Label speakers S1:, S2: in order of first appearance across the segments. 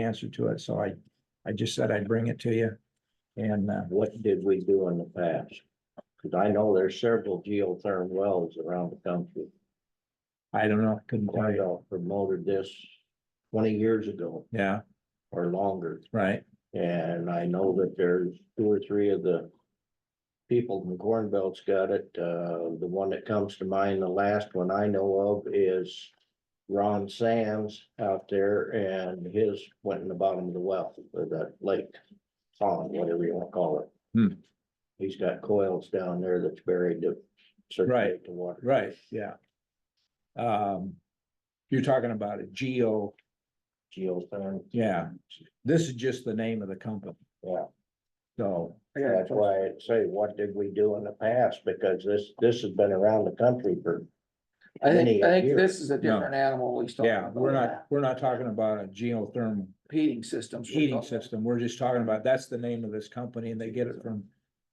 S1: answer to it, so I, I just said I'd bring it to you. And, uh,
S2: What did we do in the past? Cause I know there's several geothermal wells around the country.
S1: I don't know, couldn't tell you.
S2: Cornell promoted this twenty years ago
S1: Yeah,
S2: or longer.
S1: right,
S2: And I know that there's two or three of the people in the Corn Belt's got it. Uh, the one that comes to mind, the last one I know of is Ron Sands out there and his went in the bottom of the well, or that lake, pond, whatever you wanna call it.
S1: Hmm.
S2: He's got coils down there that's buried to circulate the water.
S1: right, yeah. Um, you're talking about a geo,
S2: Geothermal,
S1: yeah, this is just the name of the company,
S2: yeah.
S1: so,
S2: That's why I say, what did we do in the past? Because this, this has been around the country for.
S3: I
S2: many
S3: think, I think
S2: years.
S3: this is a different animal he's talking
S1: yeah,
S3: about.
S1: we're not, we're not talking about a geothermal
S3: Heating systems. we're
S1: heating
S3: talking-
S1: system, we're just talking about, that's the name of this company, and they get it from,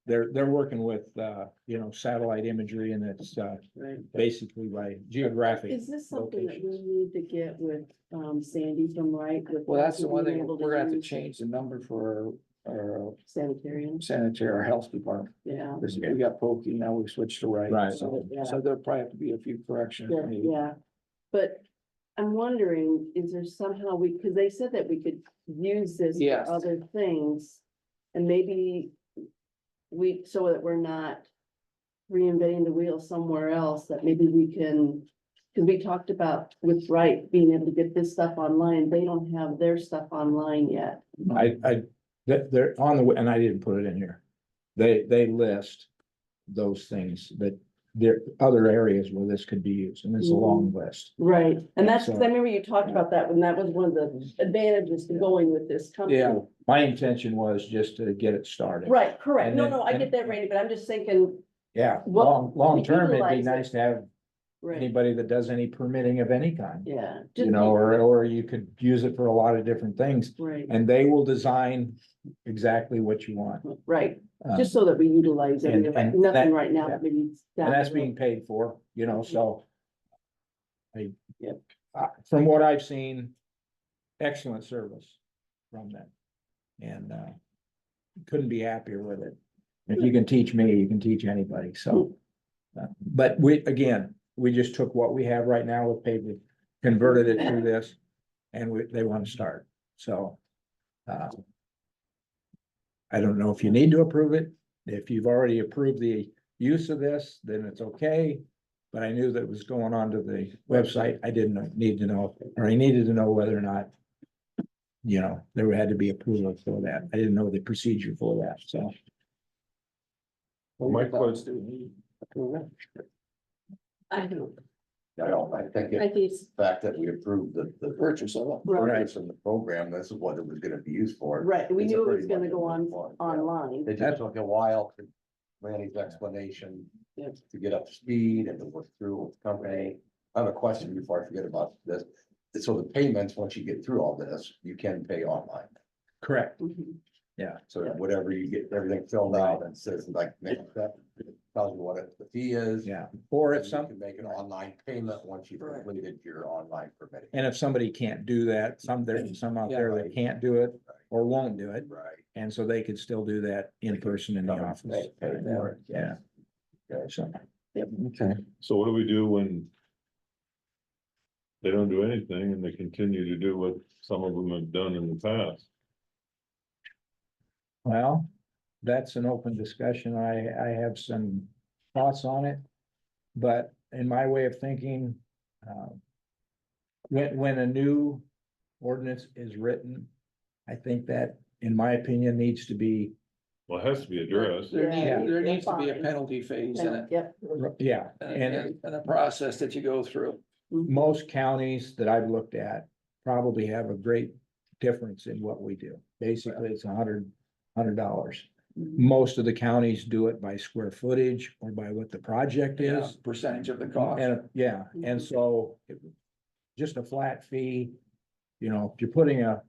S1: they're, they're working with, uh, you know, satellite imagery, and it's, uh,
S3: Right.
S1: basically by geographic.
S4: Is this something that we need to get with um Sandy from Wright? with
S3: Well, that's the one
S4: being
S3: thing,
S4: able
S3: we're gonna have to
S4: use
S3: change the number for our, our
S4: Sanitariums,
S3: sanitary, our health department.
S4: yeah,
S3: This- we got pokey, now we switched to
S1: Right.
S3: right, so, so there'll probably have to be a few corrections.
S4: yeah,
S3: made.
S4: yeah. But I'm wondering, is there somehow we, because they said that we could use this
S3: Yes.
S4: for other things. And maybe we, so that we're not reinventing the wheel somewhere else, that maybe we can. Because we talked about with Wright being able to get this stuff online, they don't have their stuff online yet.
S1: I, I, they're, they're on the, and I didn't put it in here. They, they list those things that there, other areas where this could be used, and it's a long
S4: Mm.
S1: list.
S4: Right, and that's, 'cause
S1: So- Mm-hmm.
S4: I remember you talked about that, when that was one of the advantages to going with this company.
S3: Yeah.
S1: My intention was just to get it started.
S4: Right, correct,
S1: And
S4: no,
S1: then-
S4: no, I
S1: and-
S4: get that, Randy, but I'm just thinking,
S1: Yeah,
S4: Well,
S1: long, long term, it'd be
S4: utilize it.
S1: nice to have
S4: right,
S1: anybody that does any permitting of any kind.
S4: yeah.
S1: You
S4: just
S1: know,
S4: be-
S1: or, or you could use it for a lot of different things,
S4: Right,
S1: and they will design exactly what you want.
S4: right,
S1: Uh,
S4: just so that we utilize
S1: and-
S4: it, If
S1: and that-
S4: nothing right now,
S1: yeah.
S4: but maybe. it's down
S1: And that's
S4: the road.
S1: being paid for, you know, so. I,
S3: Yep.
S1: uh, from what I've seen, excellent service from them. And, uh, couldn't be happier with it. If you can teach me, you can teach anybody, so. uh, But we, again, we just took what we have right now with paper, converted it to this, and we, they want to start, so. uh, I don't know if you need to approve it, if you've already approved the use of this, then it's okay. But I knew that it was going on to the website. I didn't need to know, or I needed to know whether or not. You know, there had to be approval for that. I didn't know the procedure for that, so.
S3: Well,
S5: My
S3: we thought-
S5: quotes-
S3: do we need approval?
S4: I don't,
S5: I don't, I think
S4: I
S5: it's
S4: think it's,
S5: the fact that we approved the, the
S3: Purchase of it.
S4: right,
S5: purchase of the program, this is what it was gonna be used for.
S4: right, we
S5: It's
S4: knew it
S5: pretty
S4: was gonna
S5: much
S4: go
S5: a
S4: on,
S5: one, yeah.
S4: online,
S5: It just took a while to Randy's explanation
S4: Yeah.
S5: to get up to speed and to work through with the company. I have a question before I forget about this. So the payments, once you get through all this, you can pay online.
S1: Correct.
S4: Mhm.
S5: So
S4: Yeah.
S5: whatever you get, everything filled out and says like, make that, tells you what it- the fee is.
S1: Yeah, or if
S5: you
S1: some,
S5: can Make an online payment once you've
S3: Right.
S5: completed your online permitting.
S1: and if somebody can't do that, some there, some out there that can't do it or won't do it.
S5: Right.
S1: And so they could still do that in person in the office. Yeah. So,
S3: Okay.
S6: So what do we do when? They don't do anything and they continue to do what some of them have done in the past?
S1: well, that's an open discussion. I, I have some thoughts on it. But in my way of thinking, um. When, when a new ordinance is written, I think that, in my opinion, needs to be,
S6: Well, it has to be addressed.
S3: There
S4: Yeah.
S3: needs, there needs to be a
S4: Fine.
S3: penalty phase in it,
S4: yep.
S1: yeah,
S3: and,
S1: and
S3: a- and a process that you go through.
S1: most counties that I've looked at. Probably have a great difference in what we do. Basically, it's a hundred, hundred dollars.
S4: Mhm.
S1: Most of the counties do it by square footage or by what the project
S3: Yeah,
S1: is.
S3: Percentage of the cost.
S1: And, yeah, and so it- just a flat fee, you know, if you're putting a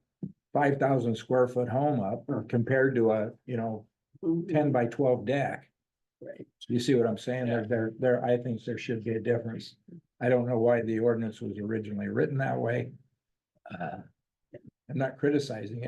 S1: five thousand square foot home up compared to a, you know,
S4: Mhm.
S1: ten by twelve deck.
S4: Right.
S1: You see what I'm saying? There, there, there, I think there should be a difference. I don't know why the ordinance was originally written that way. Uh, I'm not criticizing it.